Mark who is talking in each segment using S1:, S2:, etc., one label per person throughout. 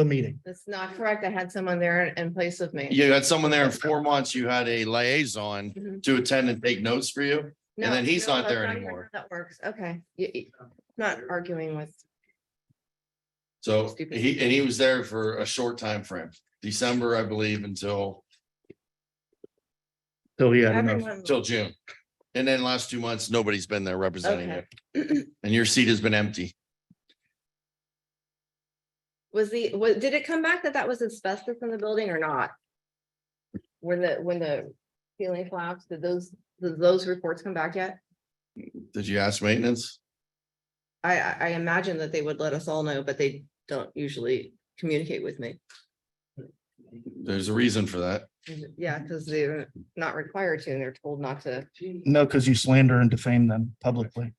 S1: the meeting.
S2: That's not correct. I had someone there in- in place of me.
S3: You Mm-hmm. had someone there in four months, you had a liaison
S2: Mhm.
S3: to attend and take notes for you.
S2: No,
S3: then he's
S2: no,
S3: not
S2: that's
S3: there
S2: how
S3: anymore.
S2: That works. Okay. You- you- Not arguing with,
S3: So
S2: Stupid.
S3: he, and he was there for a short time frame, December, I believe, until,
S1: So yeah, I don't know.
S2: everyone.
S3: till June. And then last two months, nobody's been there representing
S2: Okay.
S3: you. And your seat has been empty.
S2: Was the, was, did it come back that that was asbestos in the building or not? When the, when the ceiling collapsed, did those, did those reports come back yet?
S3: Did you ask maintenance?
S2: I, I, I imagine that they would let us all know, but they don't usually communicate with me.
S3: There's a reason for that.
S2: Yeah, because they're not required to, and they're told not to.
S1: No, because you slander and defame them publicly.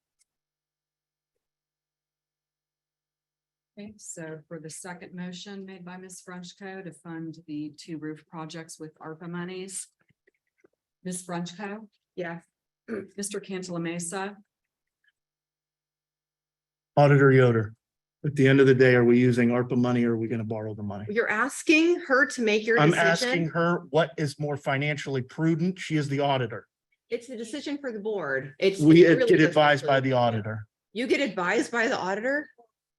S4: Okay, so for the second motion made by Ms. Frenchco to fund the two roof projects with ARPA monies. Ms. Frenchco,
S2: Yeah.
S4: Mr. Cantala Mesa,
S1: Auditor Yoder, at the end of the day, are we using ARPA money or are we going to borrow the money?
S2: You're asking her to make your
S1: I'm asking
S2: decision.
S1: her what is more financially prudent. She is the auditor.
S2: It's a decision for the board. It's.
S1: We
S2: it's really
S1: get
S2: just
S1: advised by
S2: absolute-
S1: the auditor.
S2: You get advised by the auditor?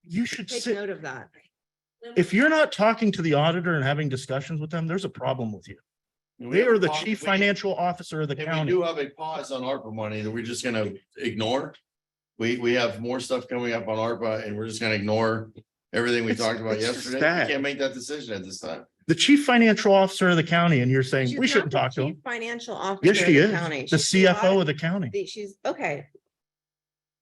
S1: You should
S2: Take
S1: sit,
S2: note of that.
S1: if you're not talking to the auditor and having discussions with them, there's a problem with you. They are the chief financial officer of the
S3: And we
S1: county.
S3: do have a pause on ARPA money that we're just gonna ignore. We, we have more stuff coming up on ARPA and we're just gonna ignore everything we
S1: It's-
S3: talked about
S1: it's just
S3: yesterday.
S1: sad.
S3: We Can't make that decision at this time.
S1: The chief financial officer of the county and you're saying
S2: She's
S1: we shouldn't
S2: not the
S1: talk to
S2: chief
S1: him.
S2: Financial officer.
S1: Yes,
S2: of
S1: she is.
S2: county.
S1: The
S2: She's the
S1: CFO
S2: audit-
S1: of the county.
S2: the- She's, okay.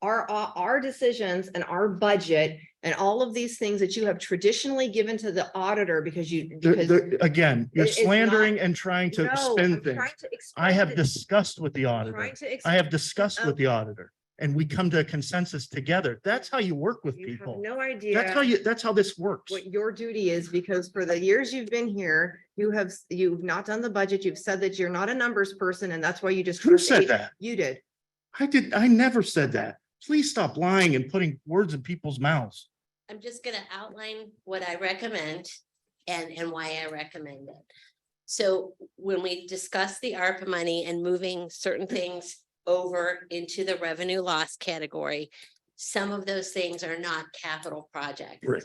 S2: Our, our, our decisions and our budget and all of these things that you have traditionally given to the auditor because you.
S1: There-
S2: because-
S1: there- again, you're
S2: it is not-
S1: slandering and trying to
S2: No,
S1: spin
S2: I'm
S1: things.
S2: trying to
S1: I
S2: explain
S1: have
S2: it.
S1: discussed with the
S2: I'm
S1: auditor.
S2: trying to
S1: I have
S2: explain-
S1: discussed with the auditor and we come to a consensus together. That's how you work with
S2: You have
S1: people.
S2: No idea.
S1: That's how you, that's how this works.
S2: what your duty is, because for the years you've been here, you have, s- you've not done the budget, you've said that you're not a numbers person, and that's why you just.
S1: Who said
S2: create-
S1: that?
S2: You did.
S1: I did, I never said that. Please stop lying and putting words in people's mouths.
S5: I'm just gonna outline what I recommend and, and why I recommend it. So when we discuss the ARPA money and moving certain things over into the revenue loss category, some of those things are not capital projects.
S1: Right.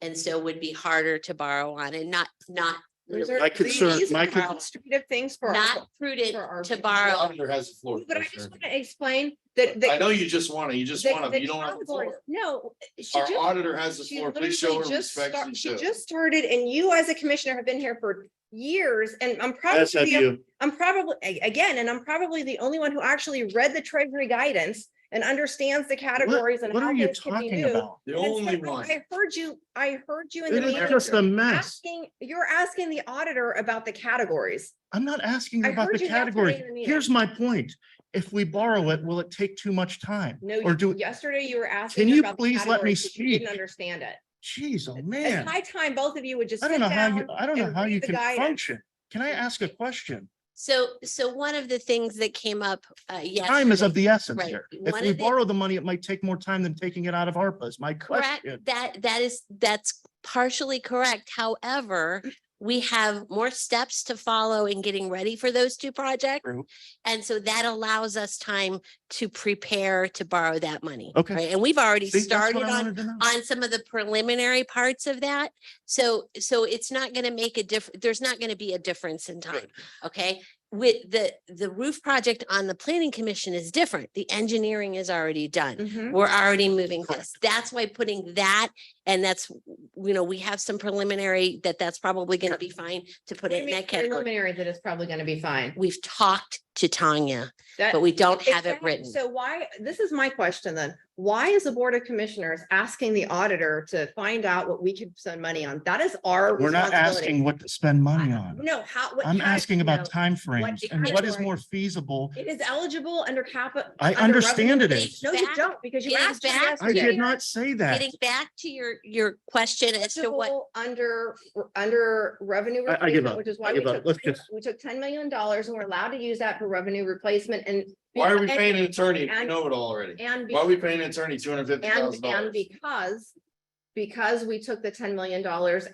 S5: And so would be harder to borrow on and not, not,
S2: These
S5: really-
S2: are-
S1: My concern-
S2: these are
S1: my con-
S2: Administrative things for. us.
S5: not prudent
S2: for our-
S5: to borrow.
S3: Auditor has the floor.
S2: But I
S3: Commissioner.
S2: just want to explain that,
S3: I
S2: that.
S3: know you just want to, you just
S2: that-
S3: want to,
S2: that
S3: you don't have the
S2: Tom Gordon-
S3: floor.
S2: No. she
S3: Our
S2: just-
S3: auditor has the
S2: she
S3: floor. Please show her
S2: literally just
S3: respect.
S2: start-
S3: and
S2: She
S3: show-
S2: just started, and you as a commissioner have been here for years, and I'm proud
S1: Yes,
S2: to
S1: have
S2: be a
S1: you.
S2: I'm probably, a- again, and I'm probably the only one who actually read the treasury guidance and understands the categories and
S1: What
S2: how
S1: are you
S2: things can be
S1: talking
S2: moved.
S1: about?
S3: The
S2: And so
S3: only one.
S2: I heard you, I heard you in the
S1: It is
S2: meeting.
S1: just a mess.
S2: Asking, you're asking the auditor about the categories.
S1: I'm not asking you
S2: I
S1: about
S2: heard
S1: the
S2: you yesterday
S1: category.
S2: in the meeting.
S1: Here's my point. If we borrow it, will it take too much time?
S2: No,
S1: Or do,
S2: you- yesterday you were asking.
S1: Can
S2: her
S1: you
S2: about the
S1: please let me
S2: categories, but you Didn't
S1: speak?
S2: understand it.
S1: geez, oh
S2: It's
S1: man.
S2: high time both of you would just
S1: I
S2: sit
S1: don't know how you,
S2: down.
S1: I don't know
S2: and
S1: how
S2: read
S1: you
S2: the
S1: can
S2: guidance.
S1: function. Can I ask a question?
S5: So, so one of the things that came up, uh, yes.
S1: Time is of the essence
S5: Right.
S1: here. If
S5: One
S1: we
S5: of the-
S1: borrow the money, it might take more time than taking it out of ARPA is my
S5: Correct,
S1: question.
S5: that, that is, that's partially correct. However,
S1: Mm.
S5: we have more steps to follow in getting ready for those two projects.
S1: True.
S5: And so that allows us time to prepare to borrow that money.
S1: Okay.
S5: right? And we've already
S1: See, that's
S5: started
S1: what I
S5: on,
S1: wanted to know.
S5: on some of the preliminary parts of that. So, so it's not going to make a diff, there's not going to be a difference in time. Okay, with the, the roof project on the planning commission is different. The engineering is already done
S2: Mhm.
S5: we're already moving
S1: Correct.
S5: this. That's why putting that, and that's, you know, we have some preliminary that that's probably gonna be fine to put
S2: What do
S5: it
S2: you
S5: in
S2: mean
S5: that category.
S2: Preliminary that it's probably going to be fine.
S5: We've talked to Tanya,
S2: That-
S5: but we don't have it
S2: Exactly.
S5: written.
S2: So why, this is my question then. Why is the Board of Commissioners asking the auditor to find out what we could spend money on? That is our
S1: We're not
S2: responsibility.
S1: asking what to spend money on.
S2: No, how? what
S1: I'm
S2: kind-
S1: asking about
S2: no.
S1: timeframes and what is
S2: category?
S1: more feasible.
S2: It is eligible under capital.
S1: I understand it
S5: revenue
S1: is.
S5: base.
S2: No, you
S5: Back-
S2: don't, because you
S5: getting
S2: asked. just
S5: back
S2: asked
S1: I
S2: me.
S1: did not say that.
S5: Getting back to your, your question as to what,
S2: Eligible Under, under revenue.
S1: I- I give
S2: replacement,
S1: up.
S2: Which is
S1: I
S2: why we
S1: give up.
S2: took,
S1: Let's just-
S2: we took ten million dollars and we're allowed to use that for revenue replacement and.
S3: Why are we
S2: and-
S3: paying an attorney? if We
S2: and-
S3: know it all already.
S2: And.
S3: Why are we paying an attorney two hundred fifty
S2: And,
S3: thousand
S2: and
S3: dollars?
S2: because, because we took the ten million dollars